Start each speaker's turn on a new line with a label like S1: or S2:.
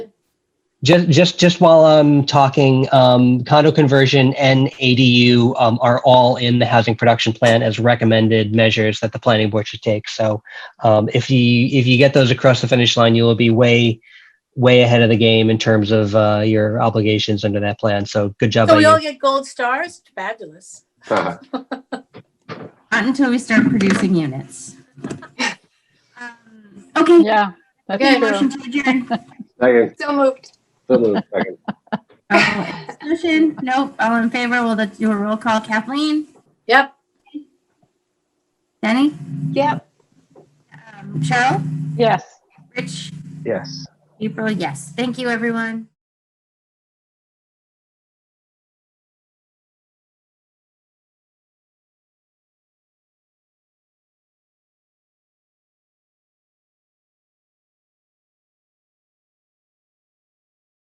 S1: just just just while I'm talking, um, condo conversion and ADU um, are all in the housing production plan as recommended measures that the planning board should take. So um, if you if you get those across the finish line, you will be way way ahead of the game in terms of uh, your obligations under that plan. So good job
S2: So
S1: by
S2: we all
S1: you.
S2: get gold stars? Fabulous.
S3: Haha.
S4: Not until we start producing units. Um, Okay,
S5: Yeah, that's
S2: Okay,
S5: true.
S4: motion to adjourn.
S3: Second,
S2: So moved.
S3: so moved, second.
S4: Oh, Discussion? Nope. All in favor? We'll do a roll call. Kathleen?
S2: Yep.
S4: Denny?
S5: Yep.
S4: Um, Cheryl?
S5: Yes.
S4: Rich?
S3: Yes.
S4: April? Yes. Thank you, everyone.